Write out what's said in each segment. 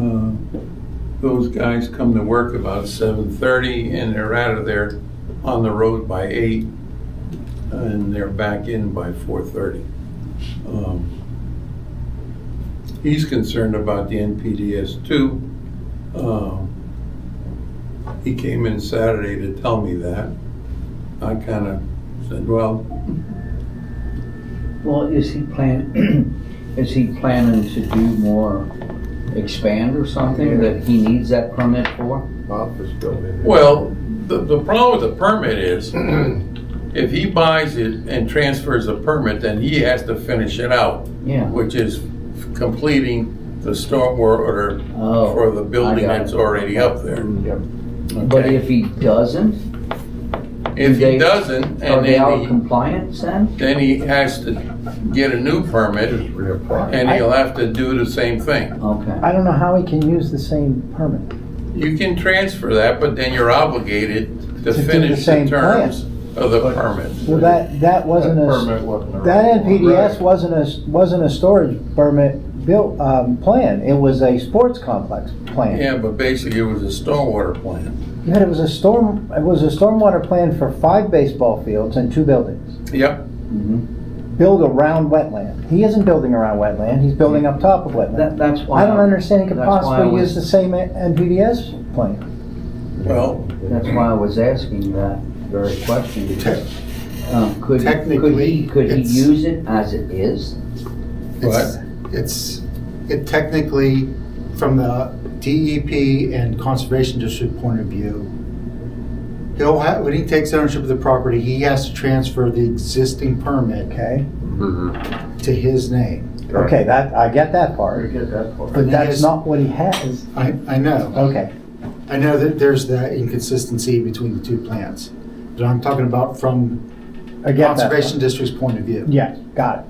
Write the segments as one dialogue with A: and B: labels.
A: Uh, Those guys come to work about seven thirty and they're out of there on the road by eight and they're back in by four thirty. Um, He's concerned about the NPDS too. Um, He came in Saturday to tell me that. I kind of said, well,
B: Well, is he plan, is he planning to do more, expand or something that he needs that permit for?
C: office building.
A: Well, the, the problem with the permit is, if he buys it and transfers the permit, then he has to finish it out,
B: Yeah.
A: which is completing the stormwater order
B: Oh,
A: for the building
B: I got it. Mm.
A: that's already up there.
C: Yep.
B: But
A: Okay?
B: if he doesn't,
A: If he
B: they-
A: doesn't,
B: are
A: and
B: they out
A: then
B: of
A: he,
B: compliance then?
A: then he has to get a new permit,
C: Just reapply.
A: and he'll have to do the same thing.
B: Okay.
D: I don't know how he can use the same permit.
A: You can transfer that, but then you're obligated to
D: To do the
A: finish the
D: same plan.
A: terms of the permit.
D: Well, that, that wasn't
C: That
D: a,
C: permit wasn't a-
D: that NPDS
A: Right.
D: wasn't a, wasn't a storage permit built, um, plan. It was a sports complex plan.
A: Yeah, but basically it was a stormwater plan.
D: Yet it was a storm, it was a stormwater plan for five baseball fields and two buildings.
A: Yep,
B: Mhm.
D: Build around wetland. He isn't building around wetland, he's building up top of
B: That,
D: wetland.
B: that's why.
D: I don't understand he could
B: that's why I
D: possibly
B: was-
D: use the same NPDS plan.
A: well,
B: That's why I was asking that very question. because, um, Could, could he,
E: Technically,
B: could he
E: it's-
B: use it as it is?
E: It's, it's, it technically, from the DEP and Conservation District point of view, he'll have, when he takes ownership of the property, he has to transfer the existing permit
D: Okay,
E: to his name.
D: okay, that, I get that part,
C: get that part.
D: but that's not what he has.
E: I, I know,
D: Okay,
E: I know that there's that inconsistency between the two plans, but I'm talking about from
D: I get that.
E: Conservation District's point of view.
D: Yeah, got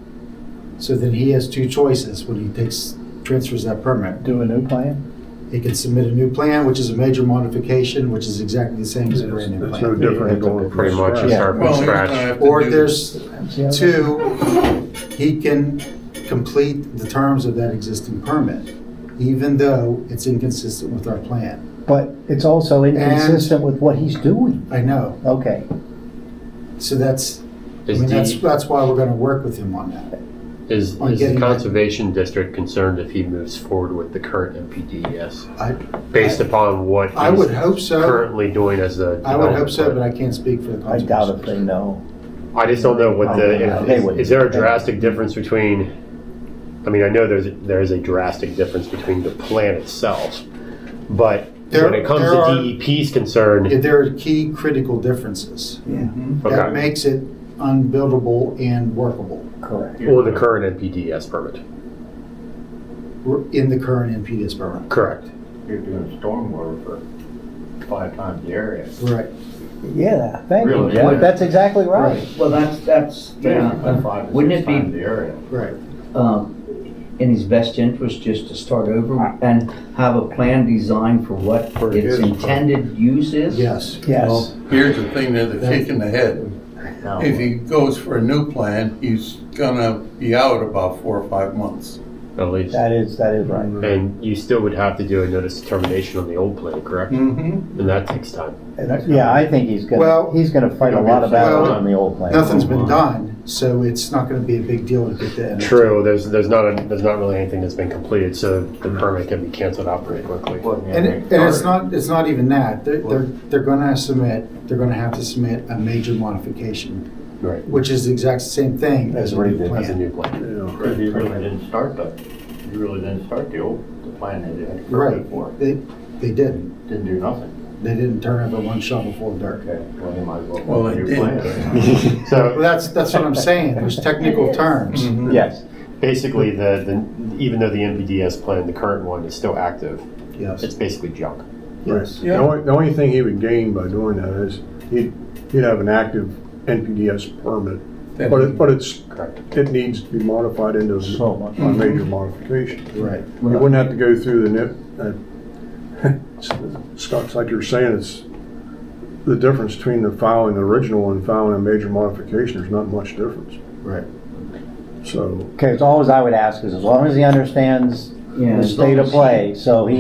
E: So then he has two choices when he takes, transfers that permit.
D: it. Do a new plan?
E: He can submit a new plan, which is a major modification, which is exactly the same as a brand new
C: No
E: plan.
C: different than going
F: Pretty much, you
D: Yeah.
F: start from
A: well, he's gonna
F: scratch.
A: have to
E: Or
A: do-
E: there's
D: See how that-
E: two, he can complete the terms of that existing permit, even though it's inconsistent with our plan.
D: But it's also inconsistent with what he's doing.
E: I know,
D: Okay,
E: so that's, I
F: Is
E: mean, that's,
F: the,
E: that's why we're gonna work with him on that.
F: is,
E: on
F: is the
E: getting-
F: conservation district concerned if he moves forward with the current MPDES?
E: I-
F: E Based upon what
E: I would
F: he's
E: hope so,
F: currently doing as a.
E: I would hope
F: development
E: so,
F: plan?
E: but I can't speak for the
D: I
E: conservation.
D: doubt if they know.
F: I just don't know what
D: I don't know.
F: the,
D: They
F: if-
D: wouldn't.
F: is there a drastic difference between, I mean, I know there's, there is a drastic difference between the plan itself, but
E: There-
F: when it comes
E: there are-
F: to DEP's concern,
E: Yeah, There are key critical differences. That
F: okay,
E: makes it unbuildable and workable.
D: Correct.
F: or the current NPDES E permit,
E: We're in the current NPDES program.
F: correct.
C: You're doing stormwater for five times the area.
E: Right.
D: Yeah, thank you,
C: Really?
D: Jeff. That's exactly right.
B: Well, that's, that's,
C: Basically
B: yeah.
C: five to
B: Wouldn't
C: six
B: it be
C: times the area.
E: Right.
B: um, in his best interest just to start over and have a plan designed for what its intended use is?
E: Yes.
D: Yes.
A: Here's the thing, there's a kick in the head.
C: Now,
A: If he goes for a new plan, he's gonna be out about four or five months.
F: At least,
D: That is, that is right.
E: mm-hmm.
F: and you still would have to do a notice of termination on the old plan, correct?
A: Mm-hmm.
F: And that takes time.
D: And Yeah, I think he's gonna,
E: Well-
D: he's gonna fight a lot of battles
E: Well,
D: on the old plan.
E: Nothing's been done, so it's not going to be a big deal to get that.
F: True, there's, there's not, a- there's not really anything that's been completed, so the permit can be canceled out pretty quickly.
C: Wasn't
E: And,
C: even
E: it- and it's
C: started.
E: not, it's not even that. They're, they're, they're going to submit, they're going to have to submit a major modification,
F: Right,
E: which is the exact same thing as
D: As
E: a
D: we
E: new
D: did.
F: as a
E: plan.
F: new plan.
C: Because you really didn't start the, you really didn't start the old, the plan that you had to
E: Right.
C: prepare for.
E: They, they didn't.
C: Didn't do nothing.
E: They didn't turn over one shovel full of dirt.
C: Okay, well, you might as well.
A: Well,
C: work
A: it
C: on your
A: did.
C: plan.
F: So,
E: Well, that's, that's what I'm saying. There's technical terms.
D: Yes,
F: Basically, the, the even though the NPDS plan, the current one, is still active,
E: Yes.
F: it's basically junk.
E: Yes.
G: The only, the only thing he would gain by doing that is he'd, he'd have an active NPDS permit. But it, but it's,
F: Correct.
G: it needs to be modified into
D: So
G: a
D: much.
G: a major modification.
E: Right.
G: You wouldn't have to go through the nip, uh, Scott's like you're saying, it's the difference between the filing the original and filing a major modification, there's not much difference.
E: Right.
G: So,
D: okay, as always I would ask is as long as he understands
B: Yeah,
D: the
B: as
D: state
B: long
D: of
B: as
D: play, so he